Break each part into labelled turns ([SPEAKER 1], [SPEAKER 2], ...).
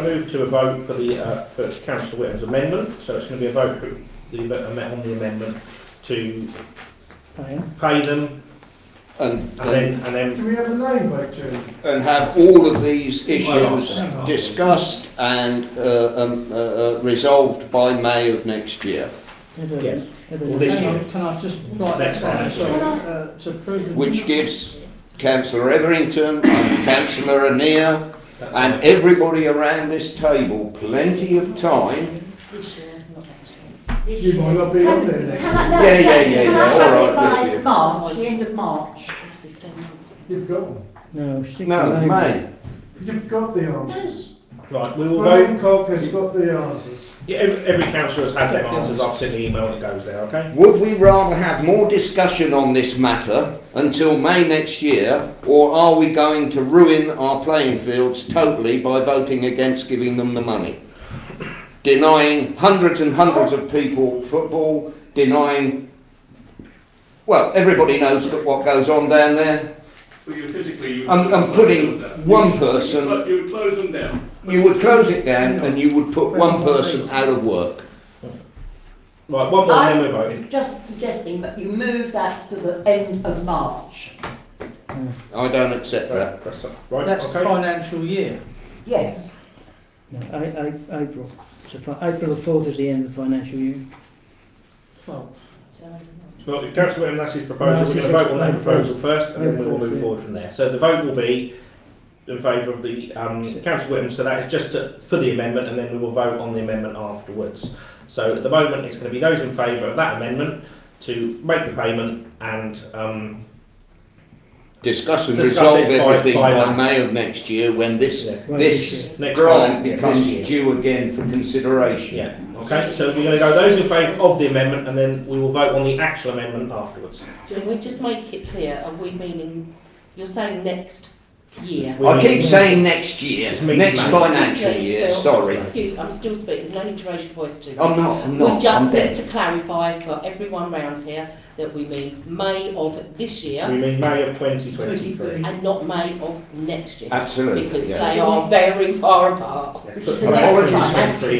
[SPEAKER 1] I move to a vote for the, uh, for councillor Whittam's amendment, so it's going to be a vote for the, ame- on the amendment to
[SPEAKER 2] Oh,
[SPEAKER 1] pay them
[SPEAKER 3] and,
[SPEAKER 1] and then, and then,
[SPEAKER 4] Do we have a name by June?
[SPEAKER 3] and have all of these issues discussed and uh, um, uh, uh, resolved by May of next year,
[SPEAKER 1] yes. Well, this
[SPEAKER 2] Hang
[SPEAKER 1] year.
[SPEAKER 2] on, can I just write
[SPEAKER 1] Next
[SPEAKER 2] that
[SPEAKER 1] one.
[SPEAKER 2] down, so, uh, to prove.
[SPEAKER 3] which gives councillor Etherington and councillor Anea and everybody around this table plenty of time.
[SPEAKER 5] This year, not next
[SPEAKER 4] You might not be on there next.
[SPEAKER 6] Can I, no,
[SPEAKER 3] Yeah, yeah,
[SPEAKER 6] can-
[SPEAKER 3] yeah,
[SPEAKER 6] can
[SPEAKER 3] yeah,
[SPEAKER 6] I
[SPEAKER 3] all
[SPEAKER 6] have
[SPEAKER 3] right,
[SPEAKER 6] it
[SPEAKER 3] that's
[SPEAKER 6] by
[SPEAKER 3] it.
[SPEAKER 6] March, the end of March?
[SPEAKER 5] It's fifteen months.
[SPEAKER 4] You've got one.
[SPEAKER 2] No, stick
[SPEAKER 3] No, May.
[SPEAKER 4] You've got the answers.
[SPEAKER 1] Right, we will vote,
[SPEAKER 4] Brian Cock has got the answers.
[SPEAKER 1] Yeah, every, every councillor has had their answers, I've seen the email that goes there, okay?
[SPEAKER 3] Would we rather have more discussion on this matter until May next year, or are we going to ruin our playing fields totally by voting against giving them the money? Denying hundreds and hundreds of people football, denying. Well, everybody knows that what goes on down there.
[SPEAKER 7] Well, you physically, you.
[SPEAKER 3] I'm, I'm putting one person,
[SPEAKER 7] But you would close them down.
[SPEAKER 3] you would close it down and you would put one person out of work.
[SPEAKER 1] Right, one more, then we're voting.
[SPEAKER 6] Just suggesting that you move that to the end of March.
[SPEAKER 3] I don't accept that.
[SPEAKER 1] Right, that's- Right,
[SPEAKER 2] That's the
[SPEAKER 1] okay.
[SPEAKER 2] financial year.
[SPEAKER 6] Yes.
[SPEAKER 8] No, I, I, April. So fi- April the fourth is the end of the financial year.
[SPEAKER 2] Well,
[SPEAKER 5] So,
[SPEAKER 1] Well, if councillor Whittam, that's his proposal, we're going to vote on that proposal first and then we'll move forward from there. So the vote will be in favour of the, um, councillor Whittam, so that is just to, for the amendment and then we will vote on the amendment afterwards. So at the moment, it's going to be those in favour of that amendment to make the payment and, um,
[SPEAKER 3] discuss and
[SPEAKER 1] Discuss it
[SPEAKER 3] resolve
[SPEAKER 1] by-
[SPEAKER 3] everything
[SPEAKER 1] by
[SPEAKER 3] by,
[SPEAKER 1] that.
[SPEAKER 3] May of next year when this
[SPEAKER 1] Yeah.
[SPEAKER 8] Right,
[SPEAKER 3] this
[SPEAKER 8] year.
[SPEAKER 1] next
[SPEAKER 3] grant
[SPEAKER 1] time, yeah,
[SPEAKER 3] becomes
[SPEAKER 1] next year.
[SPEAKER 3] due again for consideration.
[SPEAKER 1] Yeah, okay, so we're going to go those in favour of the amendment and then we will vote on the actual amendment afterwards.
[SPEAKER 5] Can we just make it clear, are we meaning, you're saying next year?
[SPEAKER 1] We
[SPEAKER 3] I
[SPEAKER 1] need-
[SPEAKER 3] keep saying next year,
[SPEAKER 1] It's me,
[SPEAKER 3] next
[SPEAKER 1] mate.
[SPEAKER 3] financial
[SPEAKER 5] Excuse me,
[SPEAKER 3] year.
[SPEAKER 5] Phil.
[SPEAKER 3] Sorry,
[SPEAKER 5] Excuse, I'm still speaking, there's no need to raise your voice to me.
[SPEAKER 3] I'm not. I'm not.
[SPEAKER 5] We just
[SPEAKER 3] I'm
[SPEAKER 5] need
[SPEAKER 3] dead.
[SPEAKER 5] to clarify for everyone round here that we mean May of this
[SPEAKER 1] So
[SPEAKER 5] year
[SPEAKER 1] we mean May of twenty twenty-three.
[SPEAKER 5] and not May of next year.
[SPEAKER 3] Absolutely.
[SPEAKER 5] Because
[SPEAKER 3] yes.
[SPEAKER 5] they are very far apart.
[SPEAKER 3] Apologies.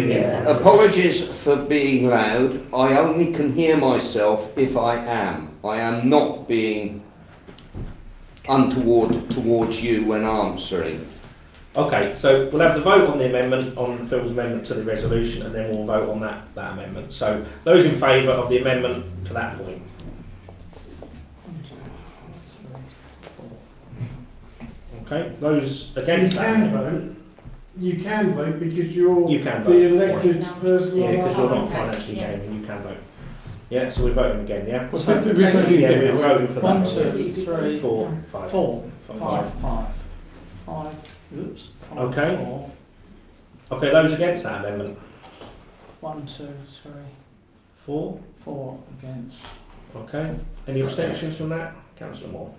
[SPEAKER 6] Yeah.
[SPEAKER 3] Apologies for being loud. I only can hear myself if I am. I am not being untoward towards you when answering.
[SPEAKER 1] Okay, so we'll have the vote on the amendment, on Phil's amendment to the resolution, and then we'll vote on that, that amendment. So those in favour of the amendment to that point? Okay, those
[SPEAKER 4] You
[SPEAKER 1] against that?
[SPEAKER 4] can vote, you can vote because you're
[SPEAKER 1] You can
[SPEAKER 4] the
[SPEAKER 1] vote.
[SPEAKER 4] elected person.
[SPEAKER 1] Yeah,
[SPEAKER 4] on
[SPEAKER 1] because
[SPEAKER 4] that
[SPEAKER 1] you're not
[SPEAKER 4] board.
[SPEAKER 1] financially gaming, you can vote. Yeah, so we're voting again, yeah?
[SPEAKER 2] Was that the
[SPEAKER 1] Yeah,
[SPEAKER 2] referendum?
[SPEAKER 1] we're voting for that.
[SPEAKER 2] One,
[SPEAKER 1] one,
[SPEAKER 2] two,
[SPEAKER 1] yeah.
[SPEAKER 2] three,
[SPEAKER 1] Four, five.
[SPEAKER 2] four,
[SPEAKER 1] Five.
[SPEAKER 2] five, five, five, oops. five,
[SPEAKER 1] Okay.
[SPEAKER 2] four,
[SPEAKER 1] Okay, those against that amendment?
[SPEAKER 2] One, two, three,
[SPEAKER 1] Four,
[SPEAKER 2] four against.
[SPEAKER 1] okay. Any abstentions from that? Councillor Moore?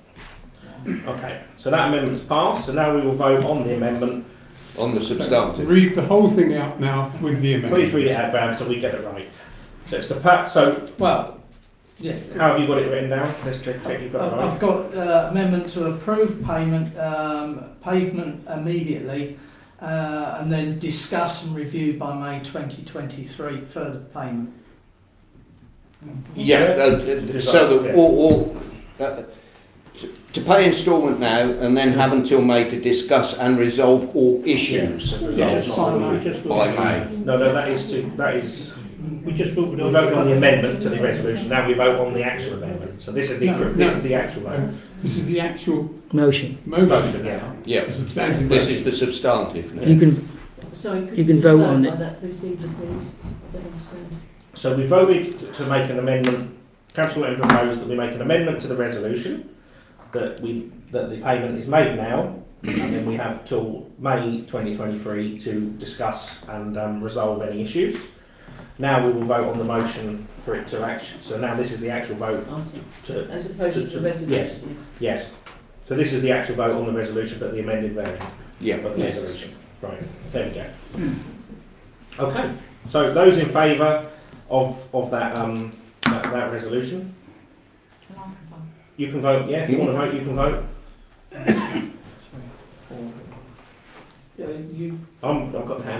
[SPEAKER 1] Okay, so that amendment's passed, so now we will vote on the amendment.
[SPEAKER 3] On the substantive.
[SPEAKER 9] Read the whole thing out now with the
[SPEAKER 1] Please read it
[SPEAKER 9] amendment.
[SPEAKER 1] out, Bram, so we get it right. So it's the pa, so
[SPEAKER 2] Well, yeah.
[SPEAKER 1] how have you got it written down? Let's check, check you've got
[SPEAKER 2] I've
[SPEAKER 1] it
[SPEAKER 2] I've
[SPEAKER 1] right.
[SPEAKER 2] got uh, amendment to approve payment, um, pavement immediately, uh, and then discuss and review by May twenty twenty-three further payment. Hmm.
[SPEAKER 3] Yeah, uh, uh, so that all, all uh, to- to pay instalment now and then have until May to discuss and resolve all issues.
[SPEAKER 2] Yes.
[SPEAKER 3] By May.
[SPEAKER 1] No, no, that is to, that is,
[SPEAKER 8] We just
[SPEAKER 1] we voted on the amendment to the resolution, now we vote on the actual amendment. So this is the,
[SPEAKER 9] No,
[SPEAKER 1] this
[SPEAKER 9] no.
[SPEAKER 1] is the actual vote.
[SPEAKER 9] Um, This is the actual
[SPEAKER 8] Motion.
[SPEAKER 1] Motion,
[SPEAKER 9] motion
[SPEAKER 1] yeah.
[SPEAKER 9] now.
[SPEAKER 3] Yeah,
[SPEAKER 9] The substantive
[SPEAKER 3] this is
[SPEAKER 9] motion.
[SPEAKER 3] the substantive now.
[SPEAKER 8] You can,
[SPEAKER 5] Sorry, could
[SPEAKER 8] You can vote on
[SPEAKER 5] clarify that procedure, please? I don't understand.
[SPEAKER 1] So we voted t- to make an amendment, council Whittam proposed that we make an amendment to the resolution, that we, that the payment is made now, and then we have till May twenty twenty-three to discuss and, um, resolve any issues. Now we will vote on the motion for it to action, so now this is the actual vote to,
[SPEAKER 5] As opposed
[SPEAKER 1] to the resolution, yes. So this is the actual vote on the resolution, but the amended version
[SPEAKER 3] Yeah.
[SPEAKER 1] of the
[SPEAKER 2] Yes.
[SPEAKER 1] resolution. Right, there we go. Okay, so those in favour of, of that, um, that, that resolution, you can vote, yeah, if you want to vote, you can vote.
[SPEAKER 2] Three, four. Yeah, you- you
[SPEAKER 1] I'm, I've got the hand